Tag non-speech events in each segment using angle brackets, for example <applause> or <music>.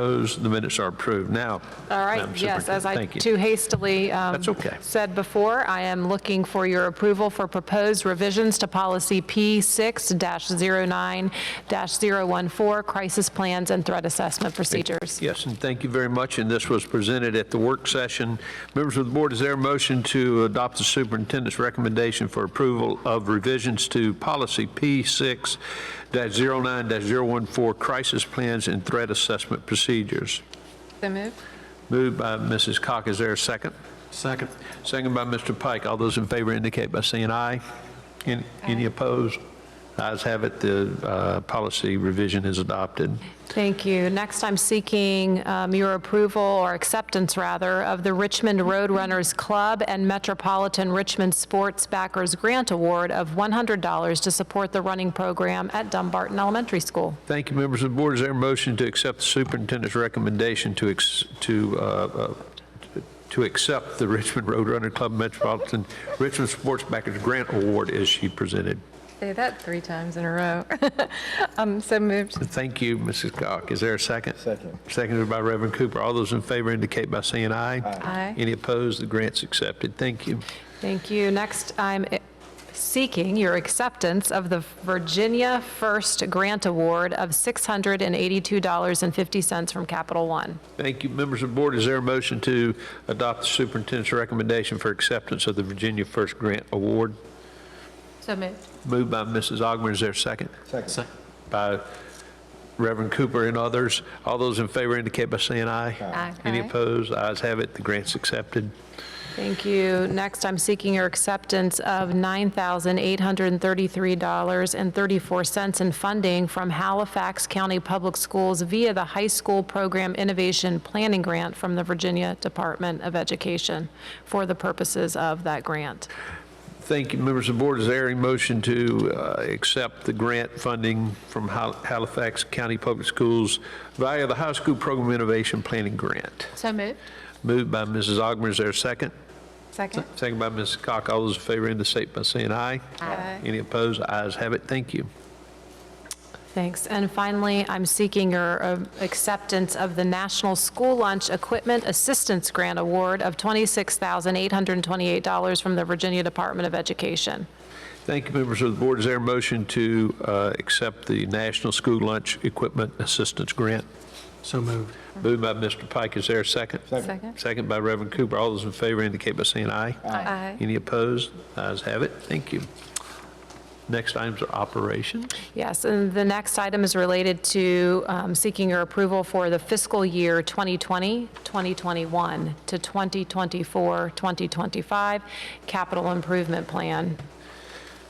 Opposed, the minutes are approved. Now. All right, Madam yes, as I Superintendent, thank you. too hastily um, That's okay. said before, I am looking for your approval for proposed revisions to policy P6-09-014, crisis plans and threat assessment procedures. Yes, and thank you very much, and this was presented at the work session. Members of the board, is there a motion to adopt the superintendent's recommendation for approval of revisions to policy P6-09-014, crisis plans and threat assessment procedures? So move. Moved by Mrs. Cock, is there a second? Second. Second by Mr. Pike. All those in favor indicate by saying aye. Any- Any opposed? Ayes have it, the uh, policy revision is adopted. Thank you. Next, I'm seeking um, your approval, or acceptance rather, of the Richmond Roadrunners Club and Metropolitan Richmond Sports Backers Grant Award of $100 to support the running program at Dumbarton Elementary School. Thank you, members of the board. Is there a motion to accept the superintendent's recommendation to, ex- to, uh, uh, to accept the Richmond Roadrunner Club Metropolitan Richmond Sports Backers Grant Award as she presented? Say that three times in a row. <laughs> I'm so moved. Thank you, Mrs. Cock. Is there a second? Second. Seconded by Reverend Cooper. All those in favor indicate by saying aye. Aye. Any opposed? The grant's accepted. Thank you. Thank you. Next, I'm seeking your acceptance of the Virginia First Grant Award of $682.50 from Capital One. Thank you, members of the board. Is there a motion to adopt the superintendent's recommendation for acceptance of the Virginia First Grant Award? So moved. Moved by Mrs. Augmiron, is there a second? Second. By Reverend Cooper and others. All those in favor indicate by saying aye. Aye. Any Aye. opposed? Ayes have it, the grant's accepted. Thank you. Next, I'm seeking your acceptance of $9,833.34 in funding from Halifax County Public Schools via the High School Program Innovation Planning Grant from the Virginia Department of Education for the purposes of that grant. Thank you, members of the board. Is there a motion to uh, accept the grant funding from Hal- Halifax County Public Schools via the High School Program Innovation Planning Grant? So moved. Moved by Mrs. Augmiron, is there a second? Second. Second by Mrs. Cock. All those in favor indicate by saying aye. Aye. Any opposed? Ayes have it. Thank you. Thanks. And finally, I'm seeking your uh, acceptance of the National School Lunch Equipment Assistance Grant Award of $26,828 from the Virginia Department of Education. Thank you, members of the board. Is there a motion to uh, accept the National School Lunch Equipment Assistance Grant? So moved. Moved by Mr. Pike. Is there a second? Second. Second by Reverend Cooper. All those in favor indicate by saying aye. Aye. Any opposed? Ayes have it. Thank you. Next items are operations. Yes, and the next item is related to um, seeking your approval for the fiscal year 2020, 2021 to 2024, 2025 capital improvement plan.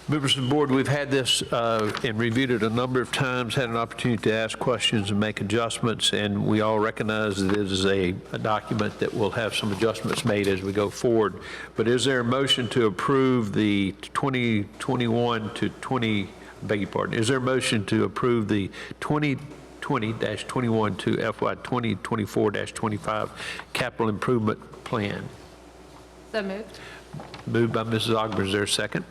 Members of the board, we've had this uh, and reviewed it a number of times, had an opportunity to ask questions and make adjustments, and we all recognize that it is a a document that will have some adjustments made as we go forward. But is there a motion to approve the 2021 to 20, beg your pardon, is there a motion to approve the 2020-21 to FY 2024-25 capital improvement plan? So moved. Moved by Mrs. Augmiron, is there a second?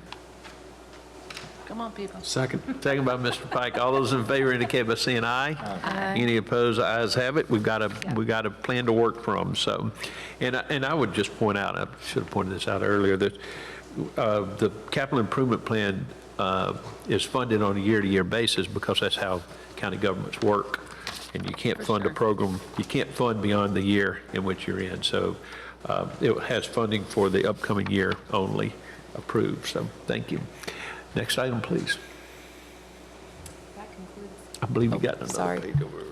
Come on, people. Second. Second by Mr. Pike. All those in favor indicate by saying aye. Any opposed, ayes have it. We've got a, we've got a plan to work from, so. And, I- and I would just point out, I should have pointed this out earlier, that uh, the capital improvement plan uh, is funded on a year-to-year basis because that's how county governments work. And you can't fund a program, you can't fund beyond the year in which you're in. So uh, it has funding for the upcoming year only approved, so thank you. Next item, please. I believe you got another sorry. page over.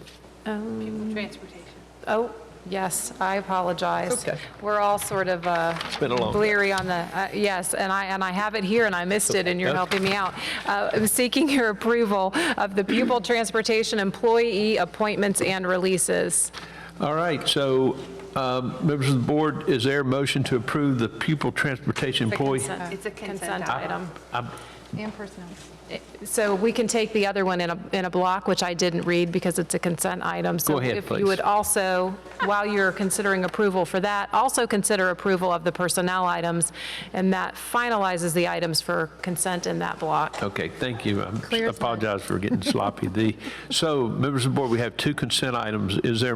Oh, yes, I apologize. Okay. We're all sort of uh, been a long day. bleary on the, uh, yes, and I, and I have it here, and I missed it, and you're Okay. helping me out. Uh, I'm Seeking your approval of the pupil transportation employee appointments and releases. All right, so, um, members of the board, is there a motion to approve the pupil transportation employee? It's a Consent item. I'm- And personnel. So we can take the other one in a, in a block, which I didn't read because it's a consent item. Go ahead, So if please. you would also, while you're considering approval for that, also consider approval of the personnel items, and that finalizes the items for consent in that block. Okay, thank you. I Clear as mud. apologize for getting sloppy. The, so, members of the board, we have two consent items. Is there